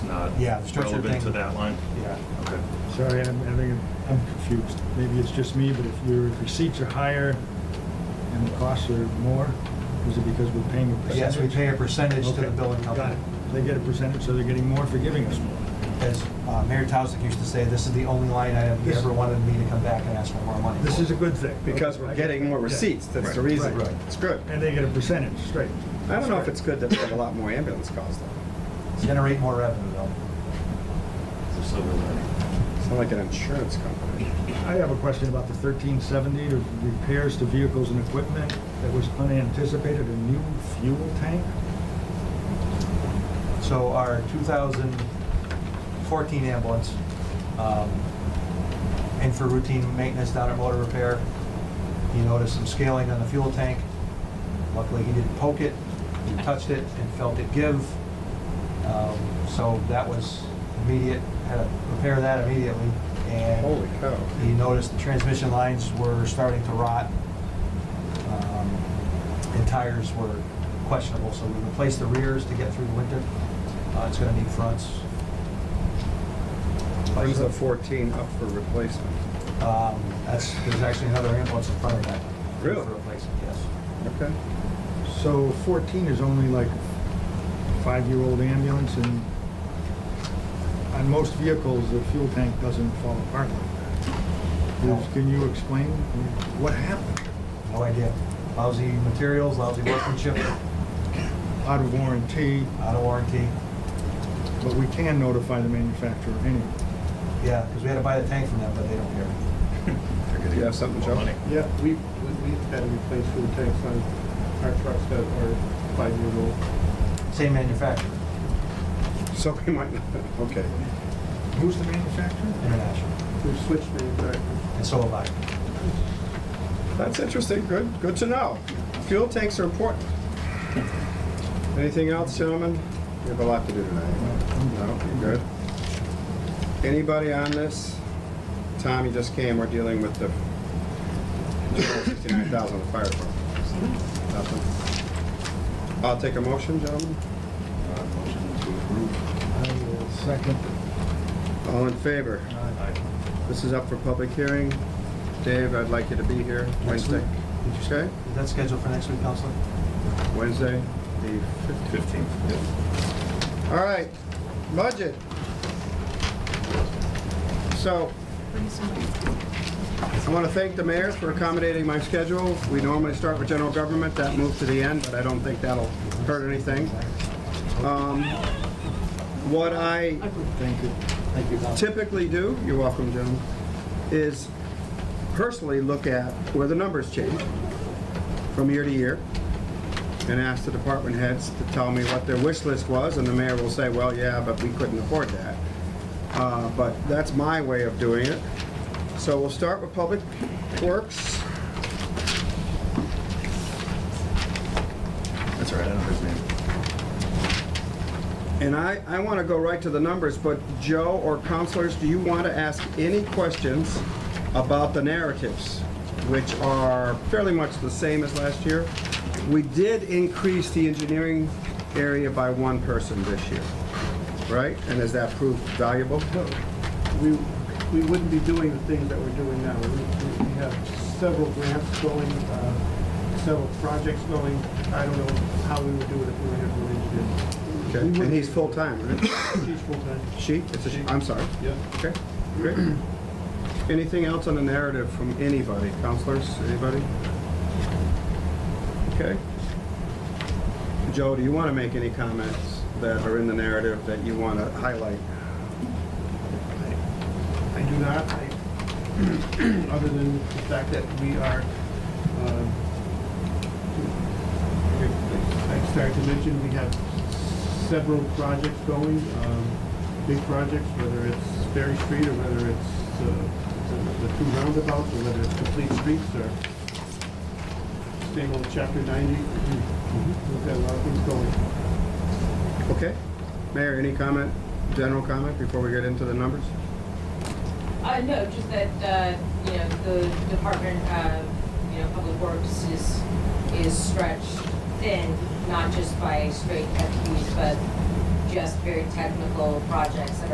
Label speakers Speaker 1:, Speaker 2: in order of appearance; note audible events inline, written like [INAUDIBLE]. Speaker 1: Yeah, the structure
Speaker 2: relevant
Speaker 1: thing.
Speaker 2: to that line?
Speaker 1: Yeah,
Speaker 2: Okay.
Speaker 3: Sorry, I'm having, I'm confused. Maybe it's just me, but if your receipts are higher and the costs are more, is it because we're paying a percentage?
Speaker 1: yes, we pay a percentage to the
Speaker 3: Okay,
Speaker 1: billing
Speaker 3: got
Speaker 1: company.
Speaker 3: it. They get a percentage, so they're getting more for giving us more.
Speaker 1: As uh, Mayor Towsik used to say, this is the only line item he
Speaker 3: This-
Speaker 1: ever wanted me to come back and ask for more money.
Speaker 3: This
Speaker 1: for.
Speaker 3: is a good thing.
Speaker 4: Because we're getting more
Speaker 3: Yeah.
Speaker 4: receipts, that's the
Speaker 2: Right.
Speaker 4: reason.
Speaker 1: Right.
Speaker 4: It's good.
Speaker 3: And they get a percentage, straight.
Speaker 4: I don't know if it's good that we have a lot more ambulance calls though.
Speaker 1: Generate more revenue though.
Speaker 2: It's a silver lining.
Speaker 4: It's not like an insurance company.
Speaker 3: I have a question about the thirteen seventy, repairs to vehicles and equipment that was unanticipated, a new fuel tank?
Speaker 1: So our 2014 ambulance, um, in for routine maintenance down at motor repair, he noticed some scaling on the fuel tank. Luckily, he didn't poke it,
Speaker 4: [LAUGHS]
Speaker 1: he touched it and felt it give. Um, So that was immediate, had to repair that immediately.
Speaker 4: Holy
Speaker 1: And
Speaker 4: cow.
Speaker 1: he noticed the transmission lines were starting to rot. um, And tires were questionable, so we replaced the rears to get through the winter. Uh, It's gonna need fronts.
Speaker 4: Brings the 14 up for replacement.
Speaker 1: Um, That's, there's actually another ambulance in front of that.
Speaker 4: Really?
Speaker 1: For replacement, yes.
Speaker 4: Okay.
Speaker 3: So fourteen is only like a five-year-old ambulance and on most vehicles, the fuel tank doesn't fall apart like that.
Speaker 1: No.
Speaker 3: Liz, Can you explain what happened?
Speaker 1: No idea. Lousy materials, lousy workmanship,
Speaker 3: Out of warranty,
Speaker 1: out of warranty.
Speaker 3: but we can notify the manufacturer anyway.
Speaker 1: Yeah, because we had to buy the tank from them, but they don't care.
Speaker 4: Do you have something,
Speaker 2: More
Speaker 4: Joe?
Speaker 2: money.
Speaker 5: Yeah, we, we- we've had to replace fuel tanks on our trucks that are five-year-old.
Speaker 1: Same manufacturer,
Speaker 4: So we might not, okay.
Speaker 3: Who's the manufacturer?
Speaker 1: international,
Speaker 5: We've switched manufacturers.
Speaker 1: and so have I.
Speaker 4: That's interesting, good, good to know. Fuel tanks are important. Anything else, gentlemen? We have a lot to do tonight. No, you good? Anybody on this? Tom, you just came, we're dealing with the 69,000 of fire department. Nothing? I'll take a motion, gentlemen.
Speaker 2: Uh, Motion to approve.
Speaker 3: I will second.
Speaker 4: All in favor?
Speaker 2: Aye.
Speaker 4: This is up for public hearing. Dave, I'd like you to be here
Speaker 1: Next
Speaker 4: Wednesday.
Speaker 1: week.
Speaker 4: Did you say?
Speaker 1: Is that scheduled for next week, Counselor?
Speaker 4: Wednesday, the 15th.
Speaker 2: Fifteen.
Speaker 4: All right, budget. So, I want to thank the mayor for accommodating my schedule. We normally start with general government, that moved to the end, but I don't think that'll hurt anything. Um, What I
Speaker 3: Thank you.
Speaker 1: Thank you, Counselor.
Speaker 4: typically do, you're welcome, Joan, is personally look at where the numbers change from year to year and ask the department heads to tell me what their wish list was, and the mayor will say, well, yeah, but we couldn't afford that. Uh, But that's my way of doing it. So we'll start with Public Works.
Speaker 2: That's all right, I don't know his name.
Speaker 4: And I, I want to go right to the numbers, but Joe or counselors, do you want to ask any questions about the narratives, which are fairly much the same as last year? We did increase the engineering area by one person this year, right? And has that proved valuable?
Speaker 5: We, we wouldn't be doing the things that we're doing now. We- We we have several grants going, uh, several projects going. I don't know how we would do it if we were here for engineering.
Speaker 4: Okay. And he's full-time, right?
Speaker 5: She's full-time.
Speaker 4: She? It's a she, I'm sorry.
Speaker 5: Yeah.
Speaker 4: Okay, great. [CLEARS THROAT] Anything else on the narrative from anybody, counselors, anybody? Okay. Joe, do you want to make any comments that are in the narrative that you want to highlight?
Speaker 5: I I [CLEARS THROAT] do not, I- other than the fact that we are, um, I I started to mention, we have several projects going, um, big projects, whether it's Ferry Street or whether it's uh, the- the two roundabouts, or whether it's complete streets or same old chapter 90. We've got a lot of things going.
Speaker 4: Okay. Mayor, any comment, general comment before we get into the numbers?
Speaker 6: Uh, no, just that, uh, you know, the Department of, you know, Public Works is, is stretched thin, not just by straight FTEs, but just very technical projects that are